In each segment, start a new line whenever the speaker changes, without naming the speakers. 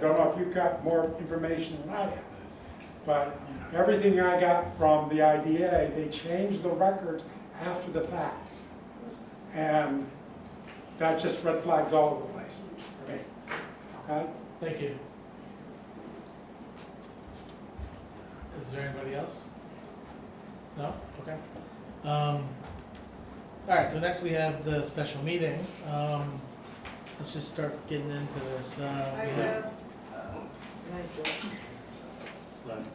don't know if you got more information than I have, but everything I got from the IDA, they changed the records after the fact. And that just red flags all over the place for me. Okay? Uh,
Thank you. Is there anybody else? No? Okay. Um, all right, so next we have the special meeting. Um, let's just start getting into this. Uh,
I
we have-
have,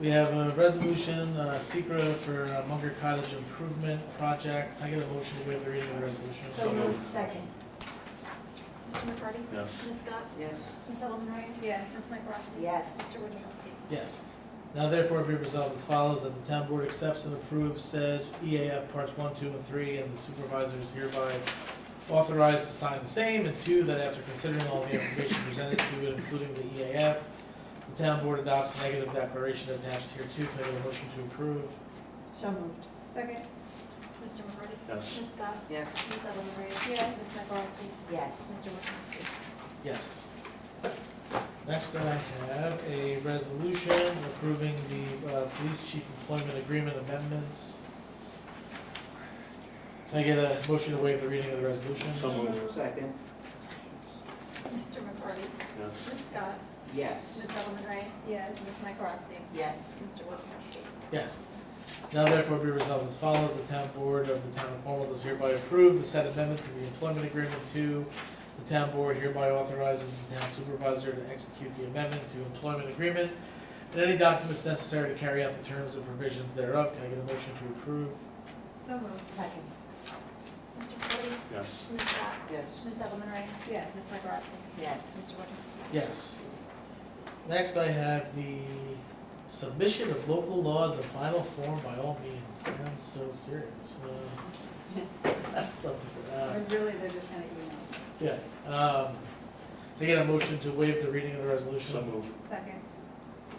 We have a resolution, uh, secret for uh, Munger Cottage Improvement Project. I get a motion to waive the reading of the resolution.
So moved, second.
Mr. McCarty?
Yes.
Ms. Scott?
Yes.
Ms. Ellen Reyes?
Yes.
Ms. Mike Rosati?
Yes.
Mr. Wojciechowski?
Yes. Now therefore be resolved as follows, that the town board accepts and approves said EAF parts one, two, and three, and the supervisor is hereby authorized to sign the same, and two, that after considering all the information presented to it, including the EAF, the town board adopts a negative declaration attached here too, may I have a motion to approve?
So moved.
second,
Mr. McCarty?
Yes.
Ms. Scott?
Yes.
Ms. Ellen Reyes?
Yes.
Ms. Mike Rosati?
Yes.
Mr. Wojciechowski?
Yes. Next, I have a resolution approving the uh, police chief employment agreement amendments. Can I get a motion to waive the reading of the resolution?
So moved.
Second.
Mr. McCarty?
Yes.
Ms. Scott?
Yes.
Ms. Ellen Reyes?
yes,
Ms. Mike Rosati?
Yes.
Mr. Wojciechowski?
Yes. Now therefore be resolved as follows, the town board of the town of Cornwall does hereby approve the said amendment to the employment agreement to the town board hereby authorizes the town supervisor to execute the amendment to employment agreement and any documents necessary to carry out the terms and provisions thereof. Can I get a motion to approve?
so moved,
Second.
Mr. McCarty?
Yes.
Ms. Scott?
Yes.
Ms. Ellen Reyes?
Yes.
Ms. Mike Rosati?
Yes.
Mr. Wojciechowski?
Yes. Next, I have the submission of local laws in final form by all means. Sounds so serious. Uh, That's something for that.
But really, they're just gonna email,
Yeah, um, can I get a motion to waive the reading of the resolution?
So moved.
second,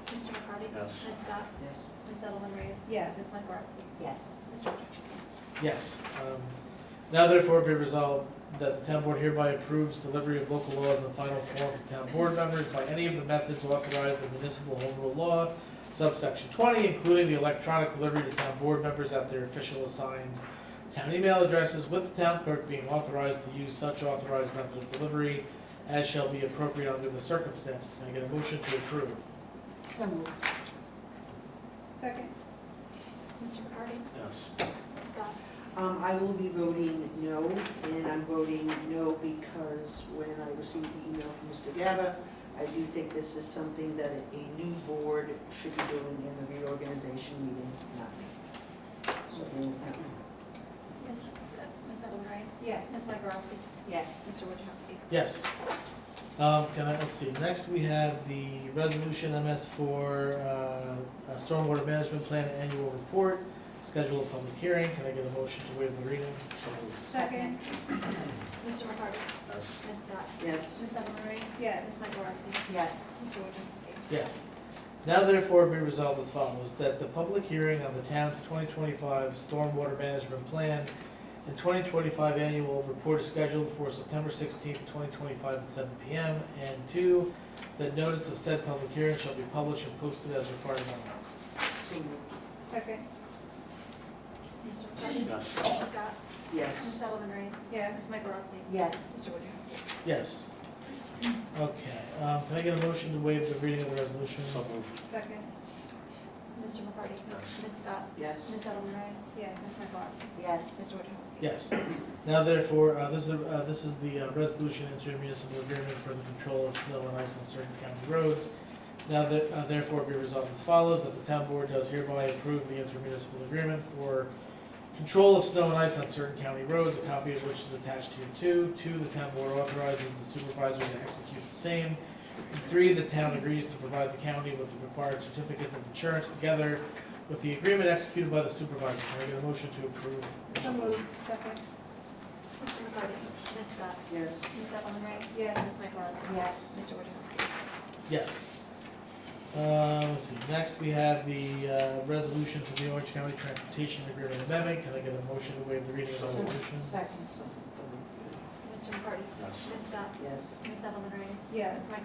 Mr. McCarty?
Yes.
Ms. Scott?
Yes.
Ms. Ellen Reyes?
Yes.
Ms. Mike Rosati?
Yes.
Mr. Wojciechowski?
Yes. um, Now therefore be resolved that the town board hereby approves delivery of local laws in final form to town board members by any of the methods authorized in municipal home rule law, subsection twenty, including the electronic delivery to town board members at their official assigned town email addresses, with the town clerk being authorized to use such authorized method of delivery as shall be appropriate under the circumstances. Can I get a motion to approve?
So moved.
second,
Mr. McCarty?
Yes.
Ms. Scott?
Um, I will be voting no, and I'm voting no because when I received the email from Mr. Gaba, I do think this is something that a new board should be doing in the reorganization meeting, not me. So,
Ms. uh, Ms. Ellen Reyes?
yes,
Ms. Mike Rosati?
Yes.
Mr. Wojciechowski?
Yes. Um, can I, let's see, next we have the resolution MS for, uh, uh, stormwater management plan annual report, schedule a public hearing, can I get a motion to waive the reading?
So moved.
second,
Mr. McCarty?
Yes.
Ms. Scott?
Yes.
Ms. Ellen Reyes?
Yes.
Ms. Mike Rosati?
Yes.
Mr. Wojciechowski?
Yes. Now therefore be resolved as follows, that the public hearing on the town's twenty twenty-five stormwater management plan and twenty twenty-five annual report is scheduled for September sixteenth, twenty twenty-five at seven P M. And two, that notice of said public hearing shall be published and posted as required by law.
So moved.
second,
Mr. McCarty?
Yes.
Ms. Scott?
Yes.
Ms. Ellen Reyes?
yes,
Ms. Mike Rosati?
Yes.
Mr. Wojciechowski?
Yes. Okay, um, can I get a motion to waive the reading of the resolution?
So moved.
second,
Mr. McCarty?
Yes.
Ms. Scott?
Yes.
Ms. Ellen Reyes?
yes,
Ms. Mike Rosati?
Yes.
Mr. Wojciechowski?
Yes. Now therefore, uh, this is, uh, this is the uh, resolution into municipal agreement for the control of snow and ice on certain county roads. Now that, uh, therefore be resolved as follows, that the town board does hereby approve the intermunicipal agreement for control of snow and ice on certain county roads, a copy of which is attached here too. Two, the town board authorizes the supervisor to execute the same. And three, the town agrees to provide the county with the required certificates of insurance together with the agreement executed by the supervisor. Can I get a motion to approve?
so moved, second,
Mr. McCarty? Ms. Scott?
Yes.
Ms. Ellen Reyes?
Yes.
Ms. Mike Rosati?
Yes.
Mr. Wojciechowski?
Yes. Uh, let's see, next we have the, uh, resolution to the Orange County Transportation Agreement Amendment. Can I get a motion to waive the reading of the
So-
resolution?
Second.
Mr. Mr. McCarty?
Yes.
Ms. Scott?
Yes.
Ms. Edelman Reyes?
Yes.
Ms. Michael